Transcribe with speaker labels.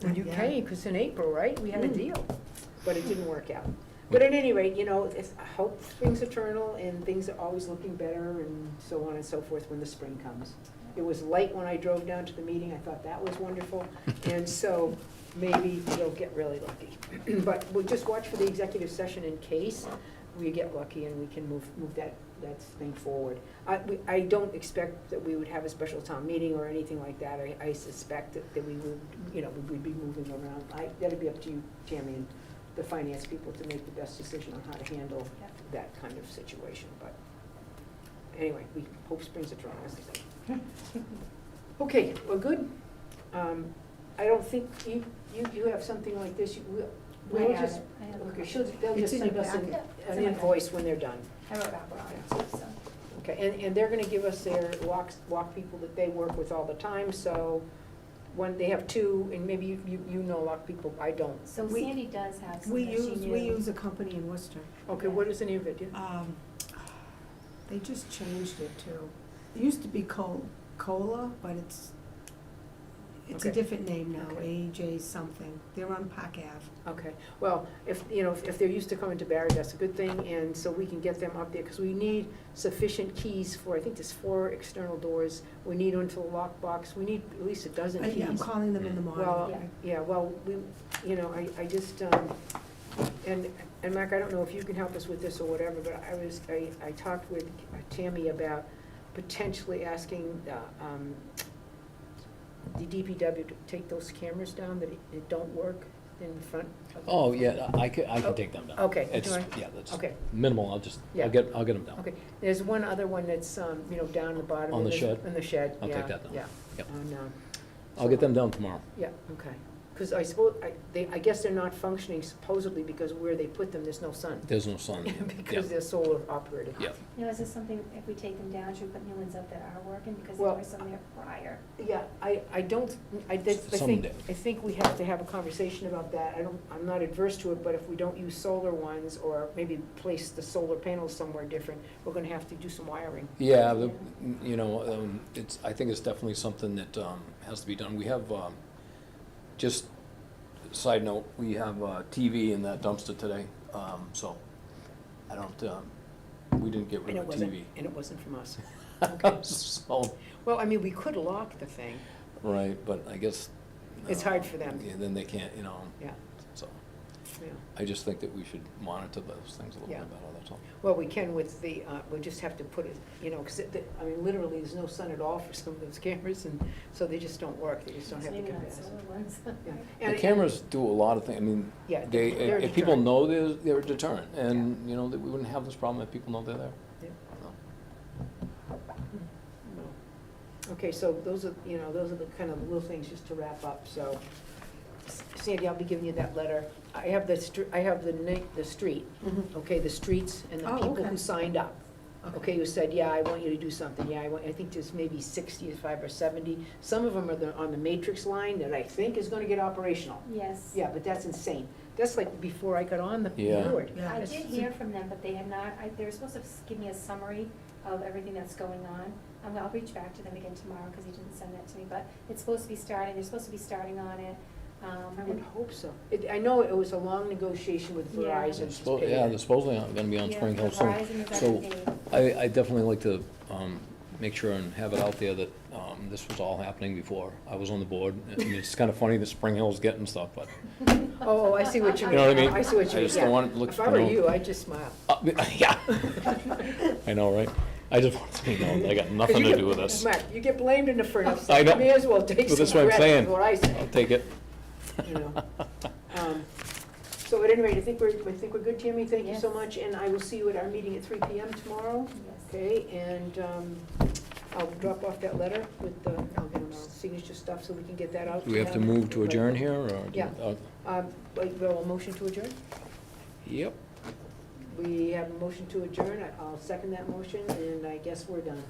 Speaker 1: when you
Speaker 2: Yeah.
Speaker 1: came, because in April, right, we had a
Speaker 2: Mm.
Speaker 1: deal, but it didn't work out. But at any rate, you know, it's, I hope things eternal and things are always looking better and so on and so forth when the spring comes. It was light when I drove down to the meeting, I thought that was wonderful, and so maybe we'll get really lucky. But we'll just watch for the executive session in case we get lucky and we can move, move that, that thing forward. I, we, I don't expect that we would have a special town meeting or anything like that, I, I suspect that, that we would, you know, we'd be moving around. I, that'd be up to you, Tammy, and the finance people to make the best decision on how to handle
Speaker 2: Yep.
Speaker 1: that kind of situation, but anyway, we hope springs eternal, as they say. Okay, well, good. Um, I don't think, you, you, you have something like this, you, we'll-
Speaker 2: I
Speaker 1: we'll
Speaker 2: got
Speaker 1: just,
Speaker 2: it. I have a
Speaker 1: okay,
Speaker 2: copy.
Speaker 1: she'll, they'll
Speaker 3: It's
Speaker 1: just
Speaker 3: in
Speaker 1: send
Speaker 3: your
Speaker 1: us an,
Speaker 2: packet. Yeah, it's
Speaker 1: an
Speaker 2: in my
Speaker 1: invoice when they're done.
Speaker 2: I wrote back on it too, so.
Speaker 1: Okay, and, and they're gonna give us their walks, walk people that they work with all the time, so one, they have two, and maybe you, you, you know a lot of people, I don't.
Speaker 2: So
Speaker 3: We-
Speaker 2: Sandy does have some
Speaker 3: We
Speaker 2: that she
Speaker 3: use, we
Speaker 2: knew.
Speaker 3: use a company in Worcester.
Speaker 1: Okay, what is the name of it? Yeah.
Speaker 3: Um, They just changed it to, it used to be Col- Cola, but it's, it's a
Speaker 1: Okay.
Speaker 3: different name now,
Speaker 1: Okay.
Speaker 3: AJ something. They're on Park Ave.
Speaker 1: Okay, well, if, you know, if if they're used to coming to Barry, that's a good thing, and so we can get them up there, because we need sufficient keys for, I think there's four external doors, we need one for the lockbox, we need at least a dozen
Speaker 3: I- I'm
Speaker 1: keys.
Speaker 3: calling them in the morning.
Speaker 1: Well,
Speaker 2: Yeah.
Speaker 1: yeah, well, we, you know, I, I just, um, and, and Mark, I don't know if you can help us with this or whatever, but I was, I, I talked with Tammy about potentially asking, uh, um, the DPW to take those cameras down that, that don't work in front of the
Speaker 4: Oh, yeah, I can, I
Speaker 1: Oh,
Speaker 4: can take them down.
Speaker 1: okay,
Speaker 4: It's,
Speaker 1: do I-
Speaker 4: yeah, that's
Speaker 1: Okay,
Speaker 4: minimal, I'll just,
Speaker 1: Yeah.
Speaker 4: I'll get, I'll get them down.
Speaker 1: okay. There's one other one that's, um, you know, down the bottom.
Speaker 4: On
Speaker 1: of
Speaker 4: the shed?
Speaker 1: In the shed,
Speaker 4: I'll
Speaker 1: yeah.
Speaker 4: take that down.
Speaker 1: Yeah.
Speaker 4: Yep.
Speaker 1: On, um,
Speaker 4: I'll get them down tomorrow.
Speaker 1: yeah, okay. Because I suppose, I, they, I guess they're not functioning supposedly because where they put them, there's no sun.
Speaker 4: There's no sun. Yeah,
Speaker 1: Because they're solar operated.
Speaker 4: yeah.
Speaker 2: You know, is this something, if we take them down, should we put new ones up that are working, because there
Speaker 1: Well,
Speaker 2: were some there prior?
Speaker 1: Yeah, I, I don't, I, did- I think,
Speaker 4: Someday.
Speaker 1: I think we have to have a conversation about that. I don't, I'm not adverse to it, but if we don't use solar ones or maybe place the solar panels somewhere different, we're gonna have to do some wiring.
Speaker 4: Yeah, the- you know, um, it's, I think it's definitely something that um, has to be done. We have, um, just side note, we have a TV in that dumpster today, um, so I don't, um, we didn't get
Speaker 1: And
Speaker 4: rid
Speaker 1: it
Speaker 4: of the
Speaker 1: wasn't,
Speaker 4: TV.
Speaker 1: and it wasn't from us. Okay.
Speaker 4: So,
Speaker 1: Well, I mean, we could lock the thing.
Speaker 4: right, but I guess.
Speaker 1: It's
Speaker 4: uh,
Speaker 1: hard for them.
Speaker 4: Yeah, then they can't, you know,
Speaker 1: Yeah,
Speaker 4: so.
Speaker 1: yeah.
Speaker 4: I just think that we should monitor those things a little
Speaker 1: Yeah.
Speaker 4: bit better, that's all.
Speaker 1: Well, we can with the, uh, we just have to put it, you know, because, I mean, literally, there's no sun at all for some of those cameras, and so they just don't work, they just don't have the
Speaker 2: Maybe not
Speaker 1: capacity.
Speaker 2: solar ones.
Speaker 1: Yeah.
Speaker 4: The
Speaker 1: And-
Speaker 4: cameras do a lot of things, I mean,
Speaker 1: Yeah,
Speaker 4: they,
Speaker 1: they're a
Speaker 4: if people
Speaker 1: deterrent.
Speaker 4: know they're, they're a deterrent, and, you know, that we wouldn't have this problem if people know they're there.
Speaker 1: Yeah.
Speaker 4: No.
Speaker 1: No. Okay, so those are, you know, those are the kind of little things just to wrap up, so S- Sandy, I'll be giving you that letter. I have the, str- I have the na, the street, okay, the streets and the
Speaker 3: Oh,
Speaker 1: people
Speaker 3: okay.
Speaker 1: who signed up. Okay, who said, yeah, I want you to do something, yeah, I want, I think there's maybe sixty-five or seventy. Some of them are the, on the matrix line that I think is gonna get operational.
Speaker 2: Yes.
Speaker 1: Yeah, but that's insane. That's like before I got on the
Speaker 4: Yeah.
Speaker 1: board.
Speaker 3: Yeah,
Speaker 2: I
Speaker 3: it's-
Speaker 2: did hear from them, but they had not, I, they were supposed to s- give me a summary of everything that's going on. I'm, gonna- I'll reach back to them again tomorrow, because he didn't send that to me, but it's supposed to be starting, they're supposed to be starting on it. Um,
Speaker 1: I would
Speaker 2: and-
Speaker 1: hope so. It, I know it was a long negotiation with
Speaker 2: Yeah.
Speaker 1: Verizon. she's
Speaker 4: Suppo-
Speaker 1: paid
Speaker 4: Yeah,
Speaker 1: it.
Speaker 4: they're supposedly not gonna be on
Speaker 2: Yeah,
Speaker 4: Spring Hill soon.
Speaker 2: Verizon is
Speaker 4: So
Speaker 2: everything.
Speaker 4: I, I definitely like to, um, make sure and have it out there that, um, this was all happening before I was on the board. I mean, it's kinda funny that Spring Hill's getting stuff, but,
Speaker 1: Oh, I see what you
Speaker 4: You
Speaker 1: mean.
Speaker 4: know what I mean?
Speaker 1: I see what you mean,
Speaker 4: I
Speaker 1: yeah.
Speaker 4: just don't want it to look
Speaker 1: If I were
Speaker 4: grown.
Speaker 1: you, I'd just smile.
Speaker 4: uh, yeah. I know, right? I just want to be known, that I got
Speaker 1: 'Cause
Speaker 4: nothing
Speaker 1: you
Speaker 4: to
Speaker 1: get-
Speaker 4: do with this.
Speaker 1: Mark, you get blamed in the furnace.
Speaker 4: I know.
Speaker 1: May as well take
Speaker 4: But
Speaker 1: some
Speaker 4: that's what I'm
Speaker 1: credit, is
Speaker 4: saying.
Speaker 1: what I
Speaker 4: I'll
Speaker 1: say.
Speaker 4: take it.
Speaker 1: You know. Um, So at any rate, I think we're, I think we're good, Tammy. Thank you so
Speaker 2: Yes.
Speaker 1: much, and I will see you at our meeting at three PM tomorrow.
Speaker 2: Yes.
Speaker 1: Okay, and um, I'll drop off that letter with the, I'll get my signature stuff so we can get that out.
Speaker 4: Do we have to
Speaker 1: them.
Speaker 4: move to adjourn here, or? do we-
Speaker 1: Yeah.
Speaker 4: uh,
Speaker 1: Um, Like, well, a motion to adjourn?
Speaker 4: Yep.
Speaker 1: We have a motion to adjourn. I- I'll second that motion, and I guess we're done.